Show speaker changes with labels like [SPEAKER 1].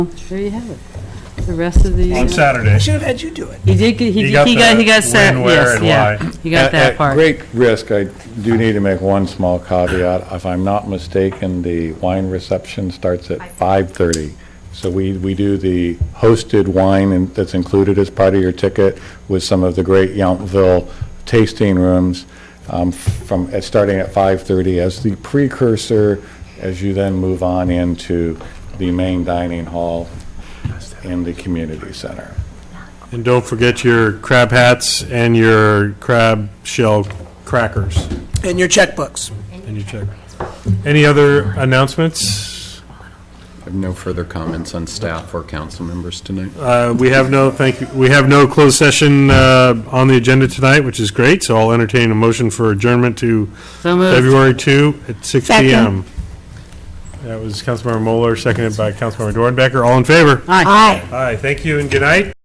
[SPEAKER 1] There you have it. The rest of the,
[SPEAKER 2] On
[SPEAKER 1] uh,
[SPEAKER 2] Saturday.
[SPEAKER 3] I should have had you do it.
[SPEAKER 1] he did, get- he
[SPEAKER 2] You
[SPEAKER 1] he
[SPEAKER 2] got
[SPEAKER 1] got, he
[SPEAKER 2] the
[SPEAKER 1] got set,
[SPEAKER 2] when, where,
[SPEAKER 1] yes,
[SPEAKER 2] and
[SPEAKER 1] yeah.
[SPEAKER 2] why.
[SPEAKER 1] He got
[SPEAKER 4] At-
[SPEAKER 1] that
[SPEAKER 4] At
[SPEAKER 1] part.
[SPEAKER 4] great risk, I do need to make one small caveat. If I'm not mistaken, the wine reception starts at 5:30. So we, we do the hosted wine and- that's included as part of your ticket with some of the great Yountville tasting rooms um, from, at- starting at 5:30 as the precursor, as you then move on into the main dining hall in the community center.
[SPEAKER 5] And don't forget your crab hats and your crab shell crackers
[SPEAKER 3] And your checkbooks.
[SPEAKER 5] and your check. Any other announcements?
[SPEAKER 6] I have no further comments on staff or council members tonight.
[SPEAKER 5] Uh, We have no, thank you, we have no closed session uh, on the agenda tonight, which is great, so I'll entertain a motion for adjournment to
[SPEAKER 1] So moved.
[SPEAKER 5] February 2 at six
[SPEAKER 7] Second.
[SPEAKER 5] PM. That was Councilmember Moeller, seconded by Councilmember Dornbecker. All in favor?
[SPEAKER 1] Aye.
[SPEAKER 7] Aye.
[SPEAKER 5] Aye, thank you and good night.